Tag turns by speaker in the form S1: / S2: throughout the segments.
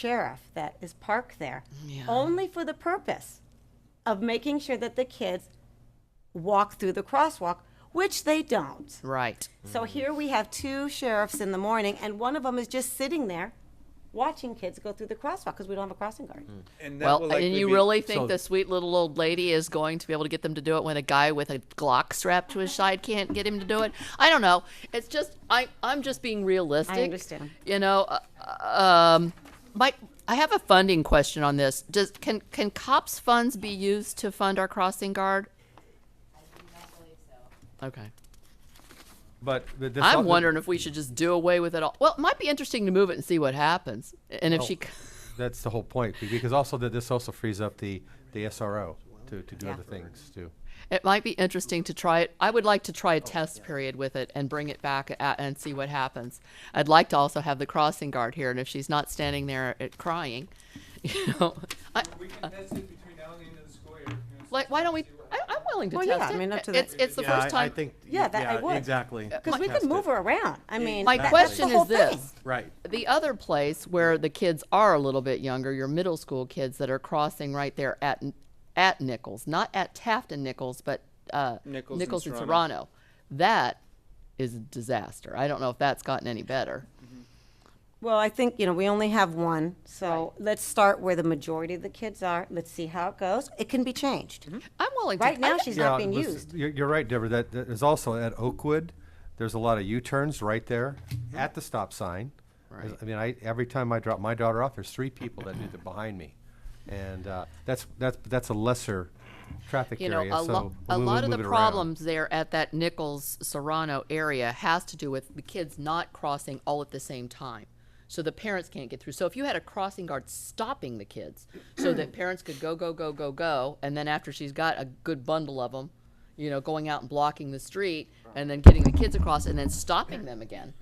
S1: sheriff that is parked there
S2: Yeah.
S1: only for the purpose of making sure that the kids walk through the crosswalk, which they don't.
S2: Right.
S1: So here we have two sheriffs in the morning, and one of them is just sitting there watching kids go through the crosswalk because we don't have a crossing guard.
S3: And that will
S2: Well,
S3: likely
S2: and you
S3: be-
S2: really think
S4: so-
S2: the sweet little old lady is going to be able to get them to do it when a guy with a Glock strapped to his side can't get him to do it? I don't know. It's just I I'm just being realistic.
S1: understand.
S2: You know, uh, um, Mike, I have a funding question on this. Does can can cops funds be used to fund our crossing guard? Okay.
S4: But th- this
S2: I'm
S4: al-
S2: wondering if we should just do away with it all. Well, it might be interesting to move it and see what happens. And if she c-
S4: That's the whole point, be- because also that this also frees up the, the SRO to, to do
S1: Yeah.
S4: other things too.
S2: It might be interesting to try it. I would like to try a test period with it and bring it back a and see what happens. I'd like to also have the crossing guard here, and if she's not standing there uh, crying, you know, I,
S5: We can
S3: Uh.
S5: test it between now and the end of the school year. you know,
S2: like why don't we? I, I'm willing to
S1: Well, yeah,
S2: test
S1: I
S2: it.
S1: mean, up to the-
S2: it's it's the
S6: yeah,
S2: first
S6: I,
S2: time.
S6: I think.
S1: Yeah, that I
S6: yeah,
S1: would.
S6: Exactly.
S2: Uh,
S1: Because we
S6: Test
S1: can move
S6: it.
S1: her around. I mean,
S2: My
S1: that- that's the
S2: question
S1: whole
S2: is this.
S1: thing.
S6: Right.
S2: The other place where the kids are a little bit younger, your middle school kids that are crossing right there at at Nichols, not at Taft and Nichols, but uh,
S3: Nichols and
S2: and
S3: Serrano.
S2: Serrano. That is a disaster. I don't know if that's gotten any better.
S1: Well, I think, you know, we only have one, so let's start where the majority of the kids are. Let's see how it goes. It can be changed.
S2: I'm willing to.
S1: Right
S2: Mm-hmm. I
S1: now,
S2: think-
S1: she's not
S4: Yeah,
S1: being
S4: this-
S1: used.
S4: You're, you're right, Deborah, that, that is also at Oakwood, there's a lot of U-turns right there
S6: Mm-hmm.
S4: at the stop sign. There's- I mean, I, every time I drop my daughter off, there's three people that do the behind me. And, uh, that's, that's, that's a lesser traffic
S2: you know,
S4: area,
S2: a,
S4: so
S2: lo-
S4: we
S2: a
S4: would
S2: lot of
S4: move
S2: the
S4: it around.
S2: problems there at that Nichols Serrano area has to do with the kids not crossing all at the same time. So the parents can't get through. So if you had a crossing guard stopping the kids so that parents could go, go, go, go, go, and then after she's got a good bundle of them, you know, going out and blocking the street and then getting the kids across and then stopping them again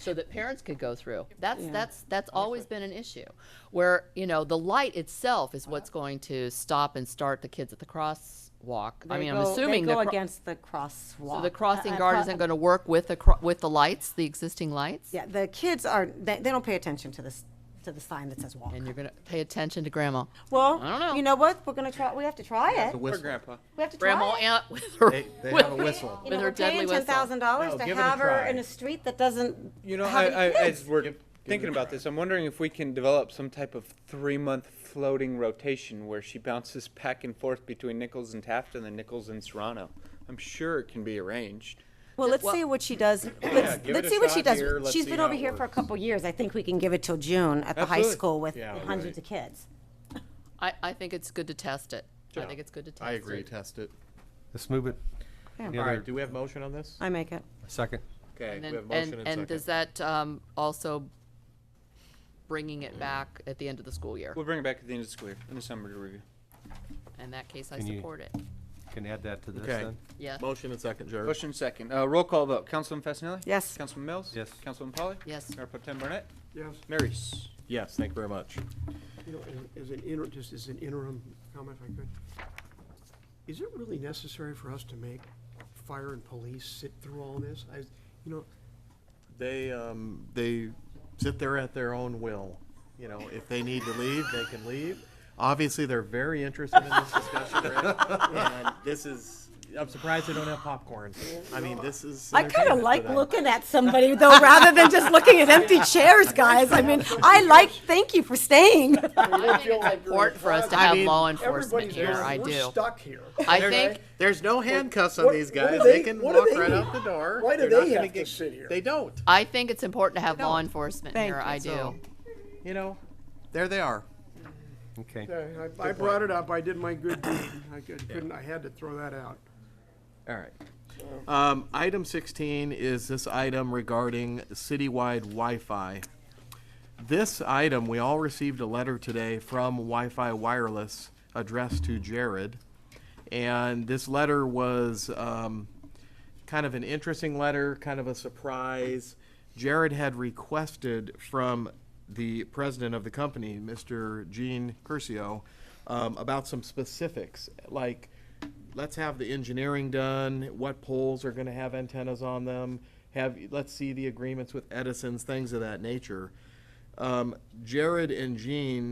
S2: so that parents could go through. That's that's that's always been an issue, where you know the light itself is what's going to stop and start the kids at the crosswalk.
S1: They
S2: I mean,
S1: go-
S2: I'm assuming
S1: They
S2: the,
S1: go
S2: cro-
S1: against the crosswalk.
S2: so the crossing
S1: Uh, uh,
S2: guard
S1: cro-
S2: isn't going to work with the cro- with the lights, the existing lights,
S1: Yeah, the kids are, they, they don't pay attention to this, to the sign that says walk.
S2: and you're going to pay attention to Grandma,
S1: Well,
S2: I don't know.
S1: you know what? We're gonna try, we have to try it.
S6: The
S1: We
S3: For
S6: whistle.
S3: grandpa.
S1: have to try it.
S2: Grandma Aunt with her.
S6: They, they
S2: with-
S6: have a whistle.
S1: You know,
S2: her
S1: we're paying
S2: deadly whistle.
S1: ten thousand dollars
S6: No,
S1: to
S6: give it a
S1: have her
S6: try.
S1: in a street that doesn't
S3: You know,
S1: have
S3: I,
S1: any
S3: I,
S1: kids.
S3: as we're thinking about this, I'm wondering if we can develop some type of three-month floating rotation where she bounces back and forth between Nichols and Taft and then Nichols and Serrano. I'm sure it can be arranged.
S1: Well, let's see what she does. Let's,
S6: give
S1: let's
S6: it a
S1: see what she
S6: shot
S1: does.
S6: here. Let's
S1: She's
S6: see
S1: been
S6: how
S1: over
S6: it
S1: here for a
S6: works.
S1: couple of years. I think we can give it till June at the high
S3: Absolutely.
S1: school with
S6: Yeah,
S1: hundreds
S6: right.
S1: of kids.
S2: I, I think it's good to test it. I think it's good to test.
S6: I agree.
S2: It.
S6: Test it.
S4: Let's move it. Any
S6: All
S4: other-
S6: right. Do we have motion on this?
S1: I make it.
S4: Second.
S2: And
S6: Okay. we
S2: then,
S6: have motion
S2: and,
S6: and,
S2: and
S6: second.
S2: does that um, also bringing it back at the end of the school year?
S3: We'll bring it back at the end of the school year in the summer to review.
S2: In that case, I
S4: Can you-
S2: support it.
S4: Can add that to this
S6: Okay.
S4: then?
S2: Yes.
S6: motion and second, Jared.
S3: Motion second. Uh, roll call vote. Councilman Fasenelli?
S1: Yes.
S3: Councilman Mills?
S4: Yes.
S3: Councilman Polly?
S2: Yes.
S3: Mayor Pro Tem Burnett?
S7: Yes,
S3: Mayor Reese?
S6: Yes. Thank you very much.
S7: you know, as- as an interim, just as an interim comment if I could. Is it really necessary for us to make fire and police sit through all this? I, you know,
S6: They um, they sit there at their own will. You know, if they need to leave, they can leave. Obviously, they're very interested in this discussion, Rick. and this is. I'm surprised they don't have popcorn. I mean, this is.
S1: I kind
S6: entertainment
S1: of
S6: for
S1: like
S6: them.
S1: looking at somebody though, rather than just looking at empty chairs, guys. I mean, I like. Thank you for staying.
S2: I think it's important for us to
S6: I
S2: have
S6: mean,
S2: law enforcement here. I
S7: We're
S2: do.
S7: stuck here.
S2: I think
S6: There's no handcuffs on
S7: What-
S6: these
S7: what do
S6: guys. They,
S7: they-
S6: can
S7: what do
S6: walk
S7: they
S6: right
S7: need?
S6: out the door.
S7: Why do
S6: They're not
S7: they
S6: gonna
S7: have to sit here?
S6: They don't.
S2: I think it's important to have law enforcement
S1: Thank
S2: here.
S1: you.
S2: I do.
S6: So, you know, there they are.
S4: Okay.
S7: Yeah, I I brought it up, I did my good deed, I could- couldn't, I had to throw that out.
S6: All right. Um, item sixteen is this item regarding citywide Wi-Fi. This item, we all received a letter today from Wi-Fi Wireless addressed to Jared. And this letter was, um, kind of an interesting letter, kind of a surprise. Jared had requested from the president of the company, Mr. Gene Curcio, um, about some specifics, like let's have the engineering done, what poles are going to have antennas on them, have let's see the agreements with Edison's, things of that nature. Um, Jared and Jean